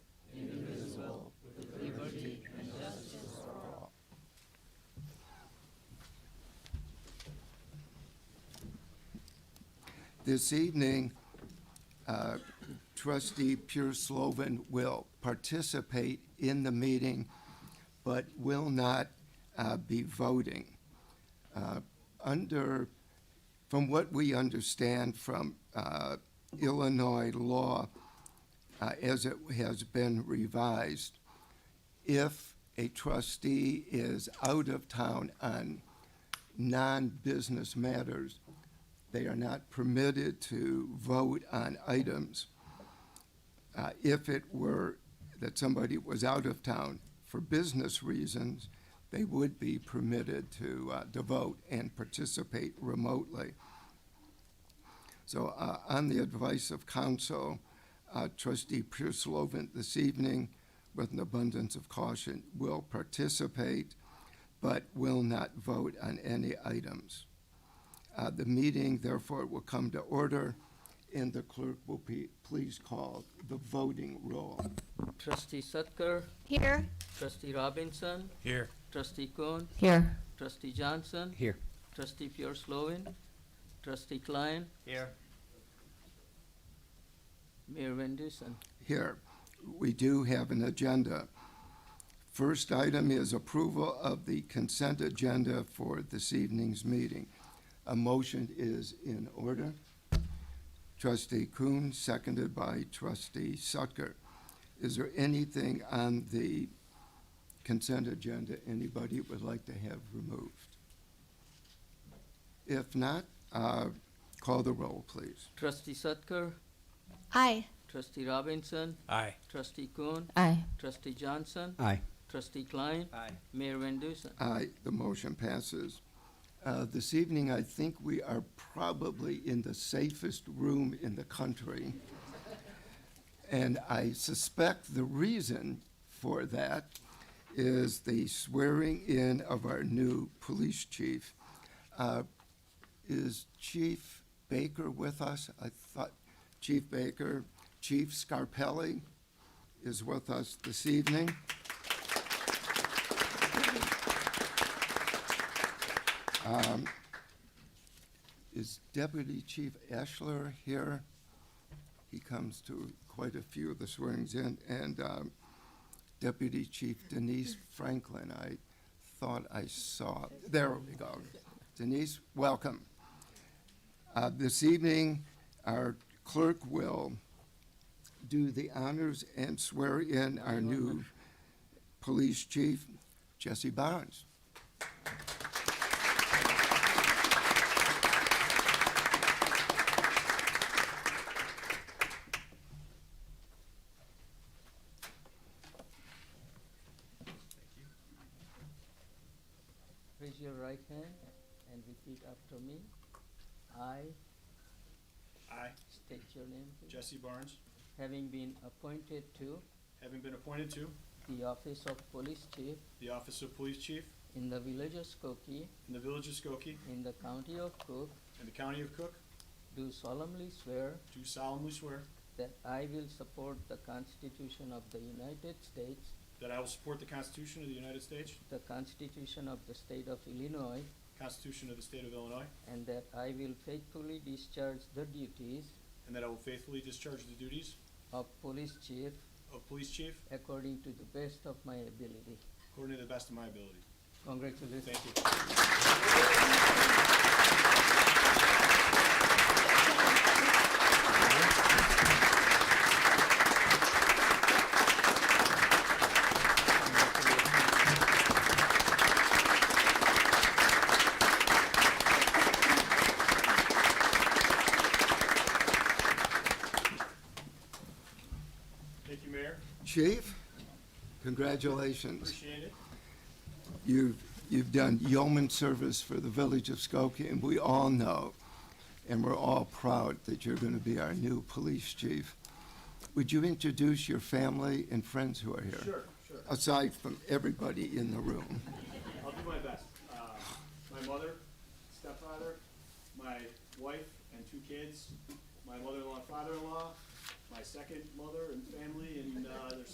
This evening, uh, trustee Pure Slovan will participate in the meeting, but will not uh, be voting. Uh, Under, from what we understand from uh, Illinois law, uh, as it has been revised, if a trustee is out of town on non-business matters, they are not permitted to vote on items. Uh, If it were that somebody was out of town for business reasons, they would be permitted to, uh, to vote and participate remotely. So uh, on the advice of counsel, uh, trustee Purslovan this evening, with an abundance of caution, will participate but will not vote on any items. Uh, The meeting therefore will come to order and the clerk will be, please call the voting roll. Trustee Sutker, Here. trustee Robinson, Here. trustee Kuhn, Here. trustee Johnson, Here. trustee Pure Slovan, trustee Klein, Here. Mayor Van Dusen. Here, we do have an agenda. First item is approval of the consent agenda for this evening's meeting. A motion is in order. Trustee Kuhn, seconded by trustee Sucker. Is there anything on the consent agenda anybody would like to have removed? If not, uh, call the roll, please. Trustee Sutker, Aye. trustee Robinson, Aye. trustee Kuhn, Aye. trustee Johnson, Aye. trustee Klein, Aye. Mayor Van Dusen. Aye, the motion passes. Uh, This evening, I think we are probably in the safest room in the country. And I suspect the reason for that is the swearing-in of our new police chief. Uh, Is Chief Baker with us? I thought Chief Baker, Chief Scarpelli is with us this evening. Is Deputy Chief Ashler here? He comes to quite a few of the swearings in, and um, Deputy Chief Denise Franklin, I thought I saw, there we go. Denise, welcome. Uh, This evening, our clerk will do the honors and swear in our new police chief, Jesse Barnes. Raise your right hand and repeat after me. I I, state your name, please. Jesse Barnes, having been appointed to having been appointed to the office of police chief the Office of Police Chief in the village of Skokie, in the Village of Skokie in the county of Cook, in the County of Cook, do solemnly swear do solemnly swear That I will support the Constitution of the United States, that I will support the Constitution of the United States, the Constitution of the State of Illinois, Constitution of the State of Illinois, and that I will faithfully discharge the duties and that I will faithfully discharge the duties of Police Chief of Police Chief according to the best of my ability. according to the best of my ability. Congratulations. Thank you. Thank you, Mayor. Chief, congratulations. Appreciate it. You've, you've done yeoman service for the village of Skokie, and we all know, and we're all proud that you're going to be our new police chief. Would you introduce your family and friends who are here? Sure, sure. Aside from everybody in the room. I'll do my best. Uh, my mother, stepfather, my wife and two kids, my mother-in-law, and father-in-law, my second mother and family, and uh, their